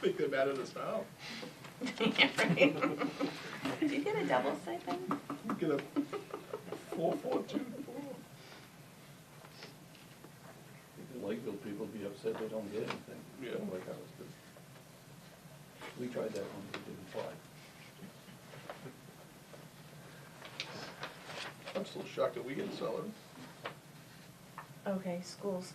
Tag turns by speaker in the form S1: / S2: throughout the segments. S1: thinking about it as now.
S2: Yeah, right. Did you get a double stipend?
S1: You Get a four, four, two, four.
S3: The Lakeville people be upset they don't get anything.
S1: Yeah.
S3: Like ours do. We tried that one, it didn't fly.
S1: I'm still shocked that we get salary.
S2: Okay, schools.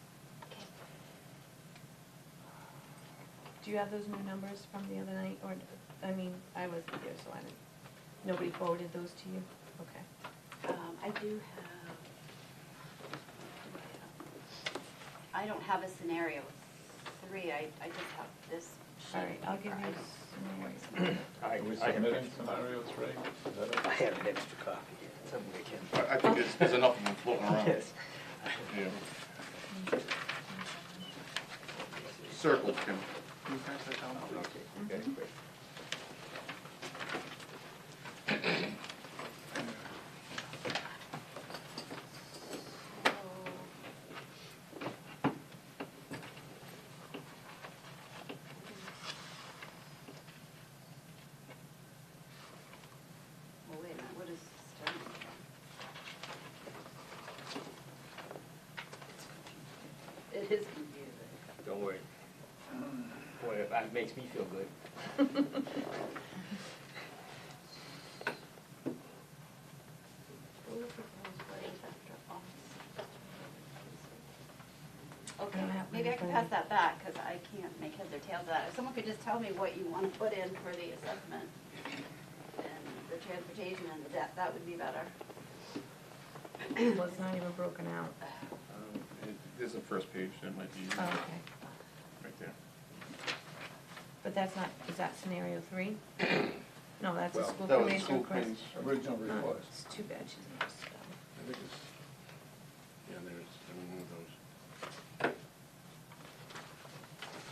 S2: Do you have those new numbers from the other night, or, I mean, I wasn't there, so I didn't, nobody forwarded those to you? Okay.
S4: Um, I do have, I don't have a scenario three, I, I just have this sheet.
S2: All right, I'll give
S4: here. I
S2: you
S4: don't-
S2: some.
S5: I,
S3: Are we
S5: I have,
S3: submitting some?
S1: Scenario three.
S3: Is that it?
S5: I have an extra copy here, somewhere I can.
S6: I I think there's, there's enough of them floating around.
S5: Yes.
S6: Yeah. Circled, Kim.
S5: Okay, okay, great.
S4: Well, wait a minute, what is starting? It is confusing.
S5: Don't worry. Boy, if that makes me feel good.
S4: Okay,
S2: I don't have
S4: maybe I can
S2: anything.
S4: pass that back, because I can't make heads or tails of that. If someone could just tell me what you want to put in for the assessment and the transportation and the debt, that would be better.
S2: Well, it's not even broken out.
S6: Um, There's a first page, that might be
S2: Oh,
S6: right
S2: Okay,
S6: there.
S2: but that's not, is that scenario three? No, that's a
S6: Well,
S2: school
S6: that was the
S2: probation
S6: school
S2: request.
S6: committee's
S3: Original
S2: Oh,
S3: request.
S2: It's too bad she's not a spell.
S6: I think it's, yeah, there's, I don't know those.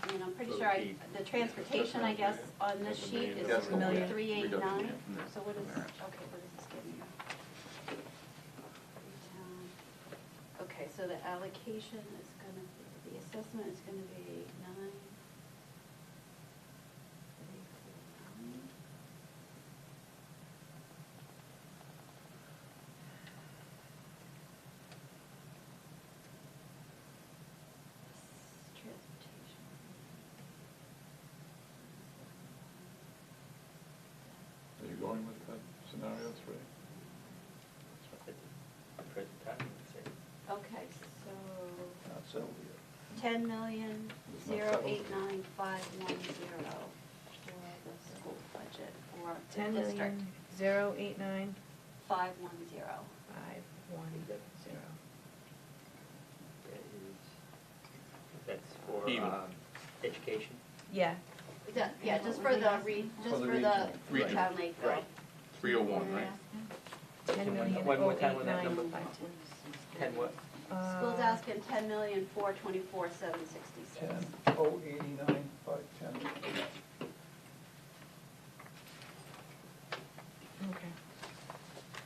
S4: I mean, I'm pretty
S6: So
S4: sure I,
S6: the-
S4: the transportation, I guess, on this
S6: That's a
S4: sheet
S6: million.
S4: is
S6: That's a
S2: million.
S4: three eight nine,
S6: Reduction, yeah.
S4: so what is,
S6: Alright.
S4: okay, what is this giving you? Okay, so the allocation is gonna, be the assessment is gonna be nine. three, four, nine. Transportation.
S3: Are you going with that scenario three?
S5: Present time, you say.
S4: Okay, so
S3: Not settled yet.
S4: ten million,
S3: It's not
S4: zero
S3: settled.
S4: eight nine five one zero for the school budget for
S2: Ten
S4: the district.
S2: million, zero, eight, nine,
S4: Five one zero.
S2: five, one, zero.
S5: That is- That's for,
S6: Even.
S5: um, education.
S2: Yeah,
S4: Ju- Yeah, just for the re,
S3: For
S4: just
S3: the
S4: for the
S6: region.
S4: town Lakeville.
S5: Right.
S6: 301, right?
S2: ten
S5: One-
S2: million,
S5: one more
S2: oh,
S5: time
S2: eight,
S5: with that
S2: nine,
S5: number.
S2: five, ten.
S5: Ten what?
S4: School's
S2: Uh,
S4: asking ten million, four twenty-four, seven sixty-six.
S3: Ten, oh eighty-nine, five ten.
S2: Okay.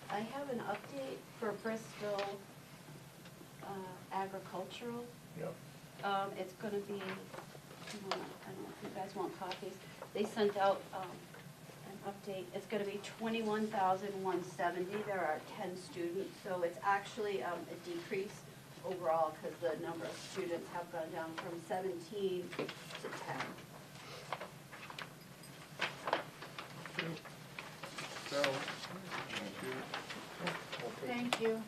S4: I have an update for Bristol uh, agricultural.
S3: Yep.
S4: Um, it's gonna be, I don't know if you guys want copies. They sent out, um, an update. It's gonna be twenty-one thousand one seventy. There are ten students, so it's actually, um, a decrease overall because the number of students have gone down from seventeen to ten.
S1: So,
S4: Thank you.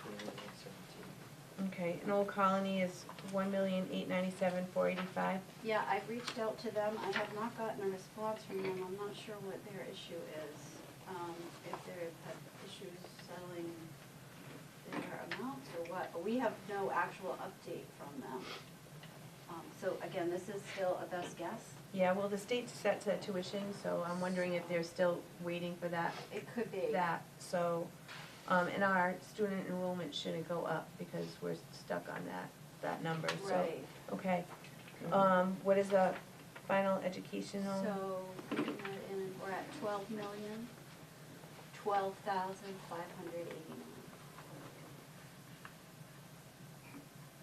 S5: Twenty-one, seventeen.
S2: Okay, and Old Colony is one million, eight ninety-seven, four eighty-five.
S4: Yeah, I've reached out to them. I have not gotten a response from them. I'm not sure what their issue is. Um, if they've had issues settling their amounts or what. We have no actual update from them. Um, so again, this is still a best guess.
S2: Yeah, well, the state's set to tuition, so I'm wondering if they're still waiting for that,
S4: It could be.
S2: that, so, um, and our student enrollment shouldn't go up because we're stuck on that, that number, so.
S4: Right.
S2: Okay, um, what is the final educational?
S4: So, we're in- we're at twelve million, twelve thousand, five hundred eighty-nine.